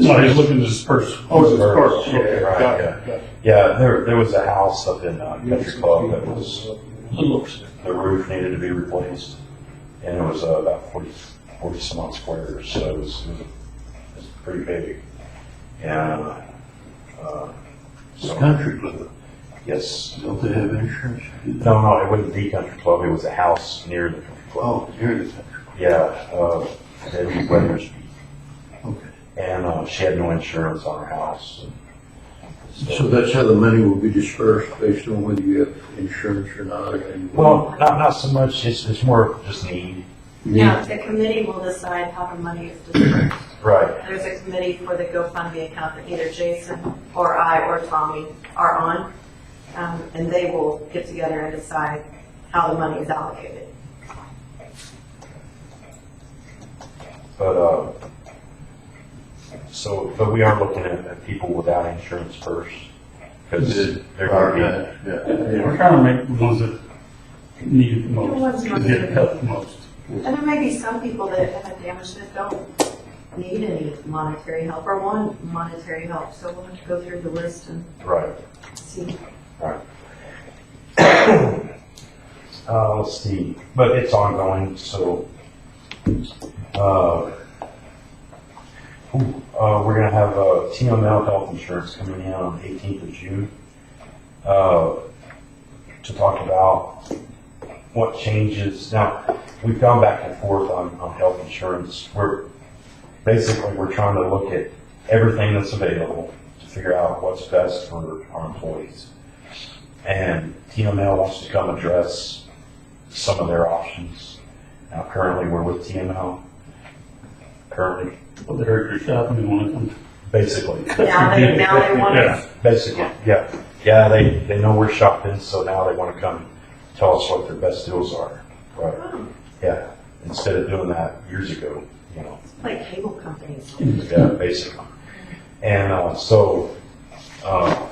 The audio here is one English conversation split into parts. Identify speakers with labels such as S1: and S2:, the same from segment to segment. S1: No, he's looking to disperse.
S2: Oh, it's dispersed,
S1: Disperse,
S2: okay,
S1: yeah,
S2: got
S1: right,
S2: it, got
S1: yeah.
S2: it. got it.
S3: Yeah, there, there was a house up in uh, Country Club that was,
S1: It looks.
S3: the roof needed to be replaced, and it was uh, about 40, 40 some odd squares, so it was, it was pretty big. And, uh,
S4: It's
S3: so,
S4: country club.
S3: yes,
S4: Don't they have insurance?
S3: no, no, it wasn't the Country Club, it was a house near the Country Club.
S4: Oh, here it is.
S3: Yeah, uh, Debbie Weathers,
S4: Okay.
S3: and uh, she had no insurance on her house.
S4: So that's how the money will be dispersed based on whether you have insurance or not? and-
S3: Well, not, not so much, it's, it's more just need.
S5: No, the committee will decide how the money is dispersed.
S3: Right.
S5: There's a committee for the GoFundMe account that either Jason or I or Tommy are on, um, and they will get together and decide how the money is allocated.
S3: But, uh, so, but we are looking at, at people without insurance first. Because they're gonna
S4: Alright, yeah.
S1: We're trying to make the ones that need it the
S5: The ones
S1: most,
S5: not
S1: that get it helped the most.
S5: And there may be some people that have damage that don't need any monetary help or want monetary help, so we'll have to go through the list and
S3: be, right.
S5: see.
S3: Uh, let's see, but it's ongoing, so, uh, ooh, uh, we're gonna have, uh, TML Health Insurance coming in on the eighteenth of June, uh, to talk about what changes. Now, we've gone back and forth on, on health insurance. We're, basically, we're trying to look at everything that's available to figure out what's best for our employees. And TML wants to come address some of their options. Now currently, we're with TML. Currently,
S1: Well, the heritage shop, and they want to come.
S3: basically,
S5: Now they, now they want
S1: Yeah.
S5: us,
S3: basically, yeah. Yeah, they, they know we're shopping, so now they want to come tell us what their best deals are. Right, yeah. Instead of doing that years ago, you know.
S5: it's like cable companies.
S3: Yeah, basically. And, uh, so, uh,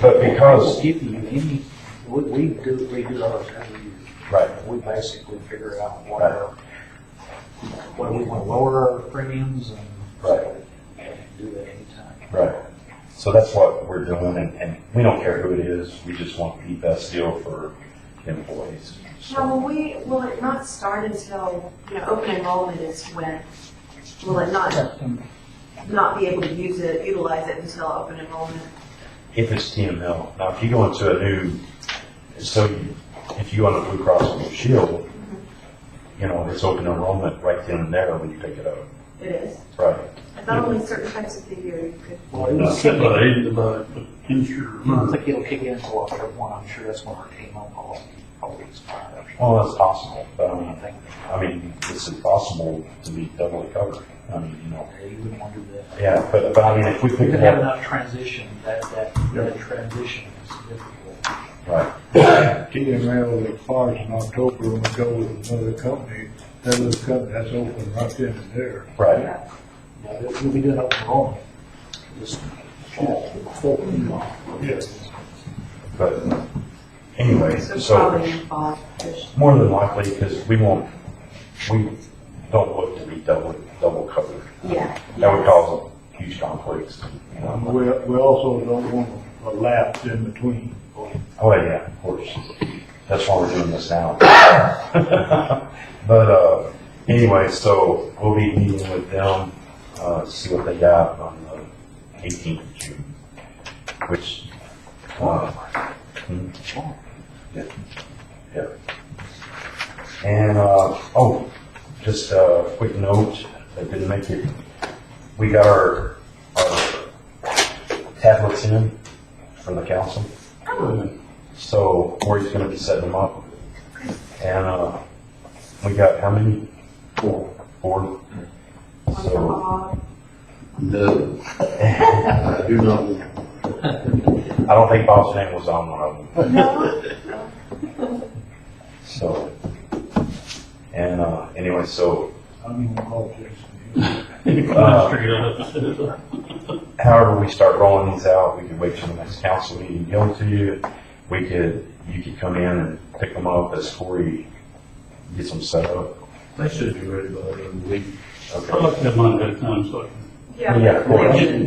S3: but because,
S6: If you, if you, we, we do, we do our review,
S3: right,
S6: we basically figure out what our, what we want to lower our premiums and
S3: right.
S6: do that anytime.
S3: Right. So that's what we're doing, and, and we don't care who it is, we just want the best deal for employees.
S5: Now,
S3: So,
S5: will we, will it not start until, you know, open enrollment is when, will it not, not be able to use it, utilize it until open enrollment?
S3: If it's TML, now if you go into a new, so you- if you want a Blue Cross Blue Shield, you know, it's open enrollment right then and there when you pick it up.
S5: It is.
S3: Right.
S5: I thought only certain times of the year you could.
S6: Well, it
S1: Not
S6: was
S1: set
S6: kicking,
S1: by
S6: I
S1: age, but insured.
S6: don't think it'll kick in until October one, I'm sure that's when our TMO policy probably expires. or something.
S3: Well, that's possible, but I
S6: I
S3: mean,
S6: think,
S3: I mean, it's impossible to be doubly covered. I mean, you know,
S6: yeah, you wouldn't want to do that.
S3: yeah, but, but I mean, if we
S6: We
S3: pick
S6: could
S3: it
S6: have
S3: up,
S6: enough transition, that, that, that transition is difficult.
S3: right,
S7: TML expires in October when we go with another company, that other company, that's open right then and there.
S3: right.
S6: You know, we'll be doing open enrollment this fall, fall.
S7: Yes.
S3: But anyway,
S5: So
S3: so
S5: probably in fall, there's-
S3: more than likely, because we won't, we don't look to be double, double covered.
S5: yeah.
S3: That would cause huge conflicts, you know.
S7: We, we also don't want a lapse in between.
S3: Oh, yeah, of course. That's why we're doing this now. But, uh, anyway, so we'll be meeting with them, uh, see what they got on the eighteenth of June, which, uh, hmm. Yeah. Yeah. And, uh, oh, just a quick note, I didn't make it, we got our, our tablets in for the council. So Corey's gonna be setting them up. And, uh, we got how many? Four. Four.
S5: One for
S3: So,
S5: all.
S4: No, I do not want
S3: I don't think Bob's name was on one of them,
S5: No,
S3: so. And, uh, anyway, so,
S7: I'm gonna call Jason.
S3: uh,
S1: Figure out how to set it up.
S3: however we start rolling these out, we could wait till the next council meeting, go to you. We could, you could come in and pick them up as Corey gets them set up.
S4: They should be ready by the end of the week.
S1: I'd
S3: Okay,
S1: like to have mine at a time, so I can
S5: Yeah.
S3: Yeah, of course.
S5: They-